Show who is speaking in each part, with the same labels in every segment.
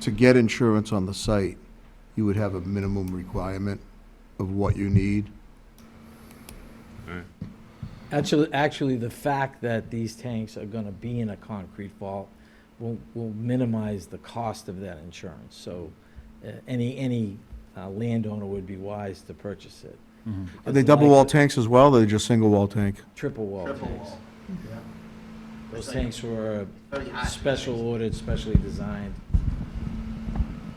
Speaker 1: to get insurance on the site, you would have a minimum requirement of what you need.
Speaker 2: Actually, actually, the fact that these tanks are gonna be in a concrete vault will, will minimize the cost of that insurance. So, uh, any, any uh, landowner would be wise to purchase it.
Speaker 1: Mm-hmm. Are they double wall tanks as well, or are they just single wall tank?
Speaker 2: Triple wall
Speaker 3: Triple
Speaker 2: tanks.
Speaker 3: wall.
Speaker 2: Those
Speaker 3: It's like-
Speaker 2: tanks were
Speaker 3: Very high.
Speaker 2: special ordered, specially designed.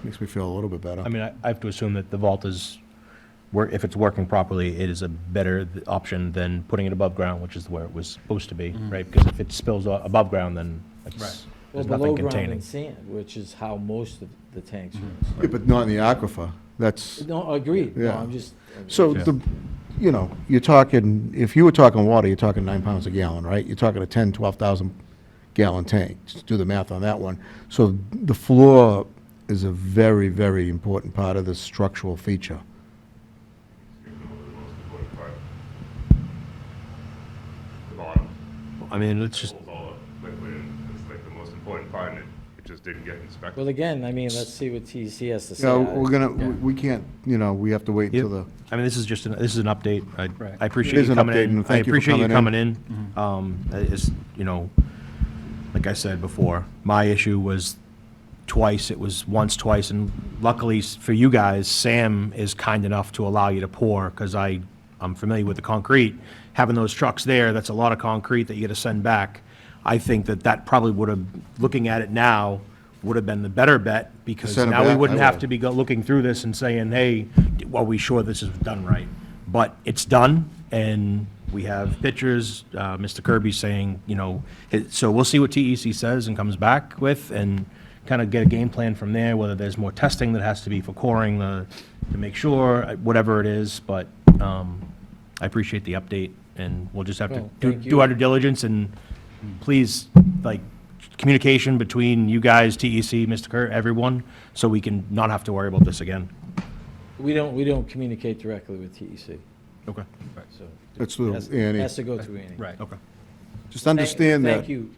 Speaker 1: Makes me feel a little bit better.
Speaker 4: I mean, I I have to assume that the vault is, wor- if it's working properly, it is a better th- option than putting it above ground, which is where it was supposed to
Speaker 2: Mm-hmm.
Speaker 4: be, right? Because if it spills o- above ground, then it's,
Speaker 2: Well,
Speaker 4: there's
Speaker 2: below
Speaker 4: nothing
Speaker 2: ground in
Speaker 4: containing.
Speaker 2: sand, which is how most of the tanks are.
Speaker 1: Yeah, but not in the aquifer, that's,
Speaker 2: No, agreed.
Speaker 1: Mm-hmm.
Speaker 2: No,
Speaker 1: Yeah.
Speaker 2: I'm just.
Speaker 1: so
Speaker 4: Yeah.
Speaker 1: the, you know, you're talking, if you were talking water, you're talking nine pounds a gallon, right? You're talking a ten, twelve thousand gallon tank, just do the math on that one. So the floor is a very, very important part of this structural feature.
Speaker 5: The bottom,
Speaker 4: I mean, let's just,
Speaker 5: holds all the liquid in, it's like the most important part, and it, it just didn't get
Speaker 2: Well,
Speaker 5: inspected.
Speaker 2: again, I mean, let's see what TEC has to say.
Speaker 1: Yeah,
Speaker 2: I-
Speaker 1: we're gonna,
Speaker 2: Yeah.
Speaker 1: we we can't, you know, we have to wait
Speaker 4: Yep.
Speaker 1: until the,
Speaker 4: I mean, this is just, an this is an update. I-
Speaker 6: Right.
Speaker 4: I
Speaker 1: It
Speaker 4: appreciate
Speaker 1: is
Speaker 4: you
Speaker 1: an
Speaker 4: coming
Speaker 1: update,
Speaker 4: in.
Speaker 1: and thank you for
Speaker 4: I
Speaker 1: coming
Speaker 4: appreciate you coming in. Um, It's, you know, like I said before, my issue was twice, it was once, twice, and luckily s- for you guys, Sam is kind enough to allow you to pour, because I, I'm familiar with the concrete. Having those trucks there, that's a lot of concrete that you gotta send back. I think that that probably would have, looking at it now, would have been the better bet, because
Speaker 1: Send 'em
Speaker 4: now we
Speaker 1: back,
Speaker 4: wouldn't
Speaker 1: I
Speaker 4: have
Speaker 1: would.
Speaker 4: to be go- looking through this and saying, hey, are we sure this is done right? But it's done, and we have pictures, uh, Mr. Kirby saying, you know, it- so we'll see what TEC says and comes back with, and kind of get a game plan from there, whether there's more testing that has to be for coring the, to make sure, uh, whatever it is, but um, I appreciate the update, and we'll just have to
Speaker 2: Well,
Speaker 4: do
Speaker 2: thank
Speaker 4: do
Speaker 2: you.
Speaker 4: our due diligence, and please, like, communication between you guys, TEC, Mr. Kerr, everyone, so we can not have to worry about this again.
Speaker 2: We don't, we don't communicate directly with E TEC,
Speaker 4: Okay.
Speaker 2: so.
Speaker 1: That's through
Speaker 2: has-
Speaker 1: Annie.
Speaker 2: Has to go through Annie.
Speaker 4: Right. Okay.
Speaker 1: just understand that,
Speaker 2: Thank you,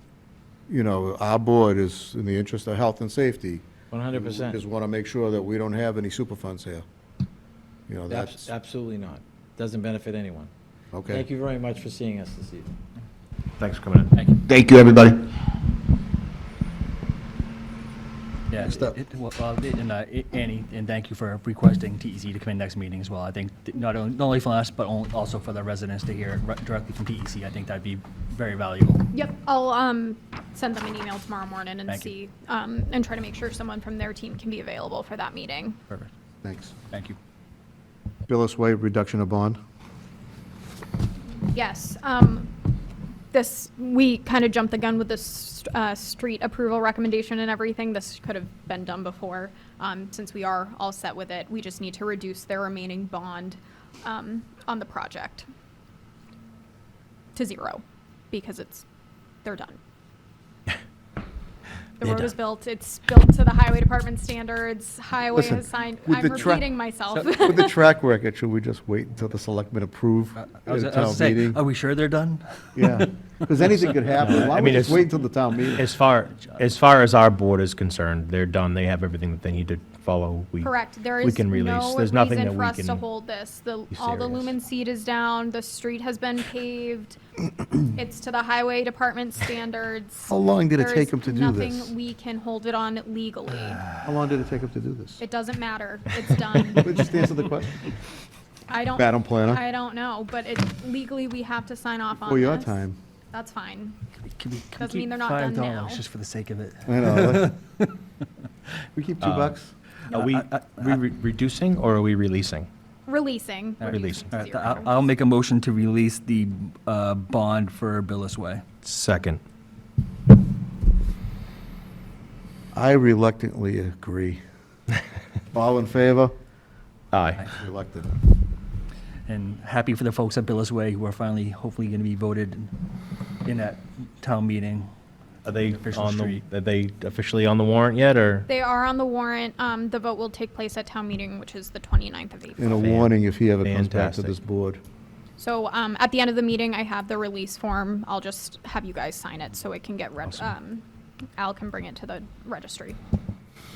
Speaker 1: you know, our board is in the interest of health and safety.
Speaker 2: one hundred
Speaker 1: We
Speaker 2: percent.
Speaker 1: Just want to make sure that we don't have any superfunds here. You know, that's,
Speaker 2: Absolutely not. Doesn't benefit anyone.
Speaker 1: okay.
Speaker 2: Thank you very much for seeing us this evening.
Speaker 4: Thanks for coming in.
Speaker 7: Thank you, everybody.
Speaker 6: Yeah,
Speaker 1: Next up.
Speaker 6: it- it- well, uh, it- and uh, it- Annie, and thank you for requesting TEC to come in next meeting as well. I think th- not only, not only for us, but on- also for the residents to hear re- directly from TEC. I think that'd be very valuable.
Speaker 8: Yep, I'll um, send them an email tomorrow morning and
Speaker 6: Thank you.
Speaker 8: see, um, and try to make sure someone from their team can be available for that meeting.
Speaker 6: Perfect.
Speaker 1: Thanks.
Speaker 6: Thank you.
Speaker 1: Billis Way, reduction of bond.
Speaker 8: Yes, um, this, we kind of jumped the gun with this uh, street approval recommendation and everything. This could have been done before. Um, Since we are all set with it, we just need to reduce their remaining bond um, on the project to zero because it's, they're done. The
Speaker 4: They're
Speaker 8: road is
Speaker 4: done.
Speaker 8: built, it's built to the highway department standards, highway
Speaker 1: Listen,
Speaker 8: has signed,
Speaker 1: with
Speaker 8: I'm
Speaker 1: the tra-
Speaker 8: repeating myself.
Speaker 1: With the track record, should we just wait until the selectmen approve at
Speaker 6: Uh, I was,
Speaker 1: a
Speaker 6: I was
Speaker 1: town
Speaker 6: saying,
Speaker 1: meeting?
Speaker 2: uh,
Speaker 6: are we sure they're done?
Speaker 1: Yeah, because anything could happen. Why
Speaker 4: I
Speaker 1: don't we
Speaker 4: mean,
Speaker 1: just
Speaker 4: it's-
Speaker 1: wait until the town meeting?
Speaker 4: As far, as far as our board is concerned, they're done. They have everything that they need to follow. We-
Speaker 8: Correct. There
Speaker 4: We
Speaker 8: is
Speaker 4: can release.
Speaker 8: no
Speaker 4: There's nothing
Speaker 8: reason
Speaker 4: that
Speaker 8: for
Speaker 4: we
Speaker 8: us to
Speaker 4: can.
Speaker 8: hold this. The,
Speaker 4: be
Speaker 8: all the
Speaker 4: serious.
Speaker 8: lumen seed is down, the street has been paved. It's to the highway department standards.
Speaker 1: How long did it
Speaker 8: There
Speaker 1: take
Speaker 8: is
Speaker 1: 'em to do this?
Speaker 8: Nothing we can hold it on legally.
Speaker 1: How long did it take them to do this?
Speaker 8: It doesn't matter. It's done.
Speaker 1: Let's Just answer the question.
Speaker 8: I don't.
Speaker 1: Madam Planner?
Speaker 8: I don't know, but it, legally, we have to sign off on this.
Speaker 1: For your time.
Speaker 8: That's fine.
Speaker 6: Can we- can we
Speaker 8: Doesn't
Speaker 6: keep
Speaker 8: mean they're not done
Speaker 6: $5
Speaker 8: now.
Speaker 6: Just for the sake of it.
Speaker 1: I know. We keep two
Speaker 4: Uh,
Speaker 1: bucks?
Speaker 4: Are we we re- reducing or are we releasing?
Speaker 8: Releasing.
Speaker 6: right.
Speaker 8: reducing
Speaker 6: All
Speaker 8: to
Speaker 6: right, uh, th-
Speaker 8: zero.
Speaker 6: I'll, I'll make a motion to release the uh, bond for Billis Way.
Speaker 4: Second.
Speaker 1: I reluctantly agree. All in favor?
Speaker 4: Aye.
Speaker 1: Reluctant.
Speaker 6: And happy for the folks at Billis Way who are finally, hopefully, going to be voted in that town meeting.
Speaker 4: Are they
Speaker 6: Official
Speaker 4: on the,
Speaker 6: street.
Speaker 4: are they officially on the warrant yet, or?
Speaker 8: They are on the warrant. Um, the vote will take place at town meeting, which is the 29th of April.
Speaker 1: And a warning if he ever comes back to
Speaker 4: Fantastic.
Speaker 1: this board.
Speaker 8: So um, at the end of the meeting, I have the release form. I'll just have you guys sign it so it can get read. Um, Al can bring it to the registry.